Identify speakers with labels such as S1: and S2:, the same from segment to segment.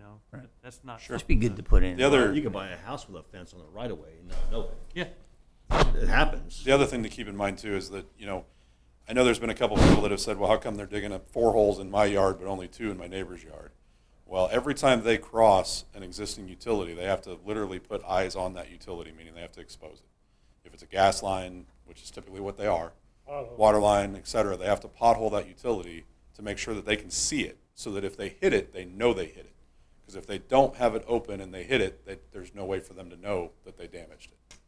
S1: know, that- that's not.
S2: Sure.
S3: Just be good to put in.
S2: The other,
S4: You could buy a house with a fence on the right of way and not know it.
S1: Yeah,
S4: It happens.
S2: The other thing to keep in mind too is that, you know, I know there's been a couple of people that have said, well, how come they're digging up four holes in my yard, but only two in my neighbor's yard? Well, every time they cross an existing utility, they have to literally put eyes on that utility, meaning they have to expose it. If it's a gas line, which is typically what they are, water line, et cetera, they have to pothole that utility to make sure that they can see it, so that if they hit it, they know they hit it. Because if they don't have it open and they hit it, they, there's no way for them to know that they damaged it.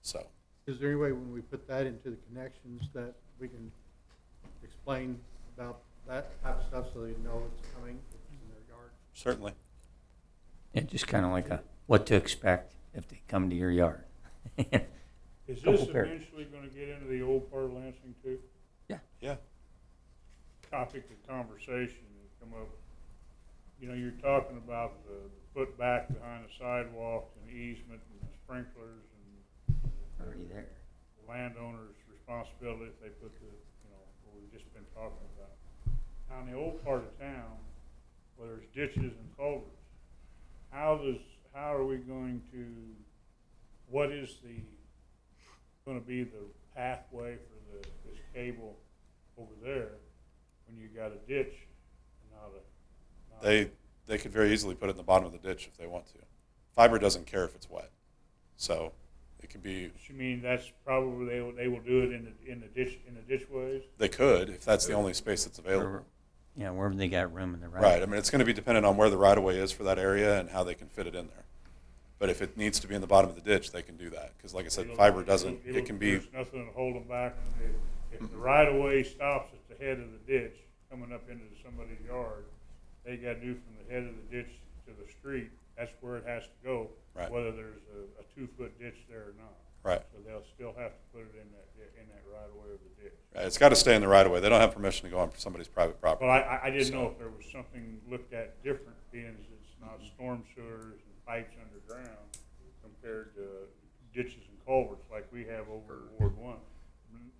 S2: So.
S5: Is there any way when we put that into the connections that we can explain about that type of stuff so they know it's coming in their yard?
S2: Certainly.
S3: Yeah, just kind of like a, what to expect if they come to your yard.
S6: Is
S3: Couple
S6: this
S3: pair.
S6: eventually gonna get into the old part of Lansing too?
S2: Yeah.
S6: Topic of conversation that come up. You know, you're talking about the put back behind the sidewalk and easement and sprinklers
S3: Already there.
S6: and landowner's responsibility if they put the, you know, what we've just been talking about. Now, in the old part of town, where there's ditches and culverts, how does, how are we going to, what is the, gonna be the pathway for the, this cable over there when you got a ditch and not a? not a-
S2: They they could very easily put it in the bottom of the ditch if they want to. Fiber doesn't care if it's wet, so it could be.
S6: You mean that's probably, they will, they will do it in the, in the ditch, in the ditch ways?
S2: They could if that's the only space that's available.
S3: Wherever- Yeah, wherever they got room in the right.
S2: Right. I mean, it's going to be dependent on where the right of way is for that area and how they can fit it in there. But if it needs to be in the bottom of the ditch, they can do that because, like I said,
S6: It'll-
S2: fiber
S6: it'll-
S2: doesn't.
S6: it'll-
S2: It can be
S6: There's nothing to hold them back. If if the right of way stops at the head of the ditch, coming up into somebody's yard, they gotta do from the head of the ditch to the street, that's where it has to go.
S2: Right.
S6: Whether there's a, a two-foot ditch there or not.
S2: Right.
S6: So they'll still have to put it in that, di- in that right of way of the ditch.
S2: it's got to stay in the right of way. They don't have permission to go on somebody's private property.
S6: Well, I- I, I didn't know
S2: So-
S6: if there was something looked at different, being as it's not storm sewers and pipes underground compared to ditches and culverts like we have over in Ward One.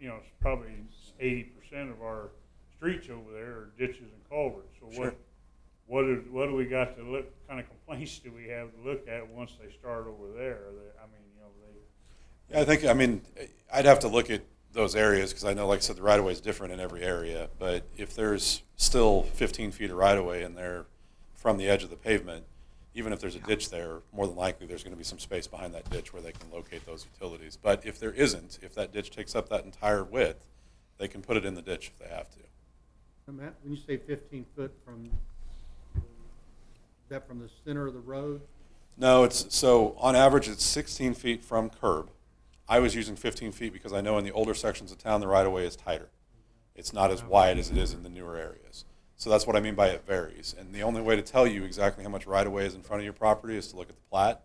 S6: You know, it's probably eighty percent of our streets over there are ditches and culverts, so
S2: Sure.
S6: what, what do, what do we got to look, kind of complaints do we have to look at once they start over there? Are they- I mean, you know, they.
S2: Yeah, I think, I mean, I'd have to look at those areas because I know, like I said, the right of way is different in every area. But if there's still 15 feet of right of way in there from the edge of the pavement, even if there's a ditch there, more than likely there's going to be some space behind that ditch where they can locate those utilities. But if there isn't, if that ditch takes up that entire width, they can put it in the ditch if they have to.
S5: And Matt, when you say fifteen foot from, is that from the center of the road?
S2: No, it's so on average it's 16 feet from curb. I was using 15 feet because I know in the older sections of town the right of way is tighter. It's not as wide as it is in the newer areas. So that's what I mean by it varies. And the only way to tell you exactly how much right of way is in front of your property is to look at the plat.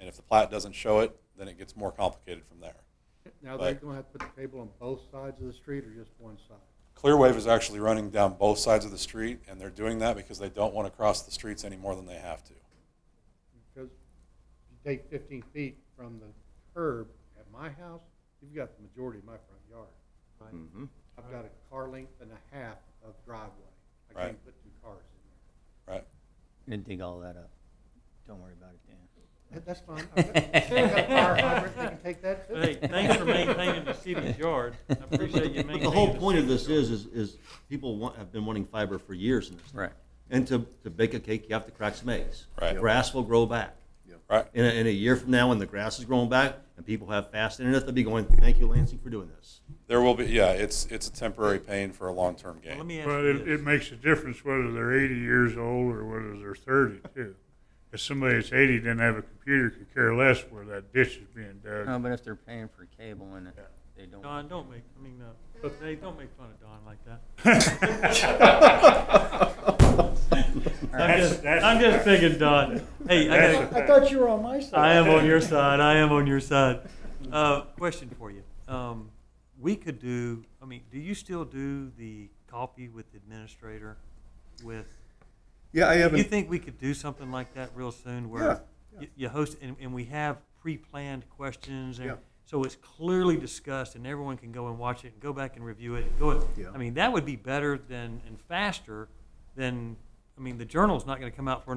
S2: And if the plat doesn't show it, then it gets more complicated from there.
S5: Now, they're
S2: Right.
S5: gonna have to put the cable on both sides of the street or just one side?
S2: Clearwave is actually running down both sides of the street, and they're doing that because they don't want to cross the streets any more than they have to.
S5: Because if you take fifteen feet from the curb at my house, you've got the majority of my front yard. right? I've got a car length and a half of driveway. I
S2: Right.
S5: can't put two cars in
S2: Right?
S3: Gonna dig all that up. Don't worry about it, Dan.
S5: there. That- That's fine. I've got- I've got a fire hydrant, they can take that too.
S1: but hey, thanks for maintaining the city's yard. I appreciate you
S4: But
S1: maintaining.
S4: the whole point of
S1: city's
S4: this is, is, is people want, have been wanting fiber for years in this. town.
S3: Right.
S4: And to, to bake a cake, you have to crack some eggs.
S2: Right.
S4: Grass will grow back.
S2: Right?
S4: In a, in a year from now, when the grass is growing back and people have fast internet, they'll be going, thank you Lansing for doing this.
S2: There will be, yeah, it's, it's a temporary pain for a long term
S1: yard. Well, Let
S2: gain.
S1: me ask
S6: Well,
S1: you
S6: it,
S1: this.
S6: it makes a difference whether they're eighty years old or whether they're thirty too. If somebody that's eighty didn't have a computer could care less where that ditch is being
S3: No,
S6: dug.
S3: but if they're paying for cable and they don't.
S1: Don, don't make, I mean, uh, hey, don't make fun of Don like that. I'm
S6: That's-
S1: just,
S6: that's-
S1: I'm just thinking, Don. Hey, I
S6: That's
S1: gotta,
S6: a-
S7: I thought you were on my side.
S1: I am on your side. I am on your side. Uh, question for you. Um, we could do, I mean, do you still do the coffee with the administrator with?
S7: Yeah, I
S1: Do you
S7: haven't,
S1: think we could do something like that real soon
S7: Yeah,
S1: where you, you host and, and we have pre-planned questions and
S7: Yeah.
S1: so it's clearly discussed and everyone can go and watch it and go back and review it and go,
S7: Yeah.
S1: I mean, that would be better than, and faster than, I mean, the journal's not going to come out for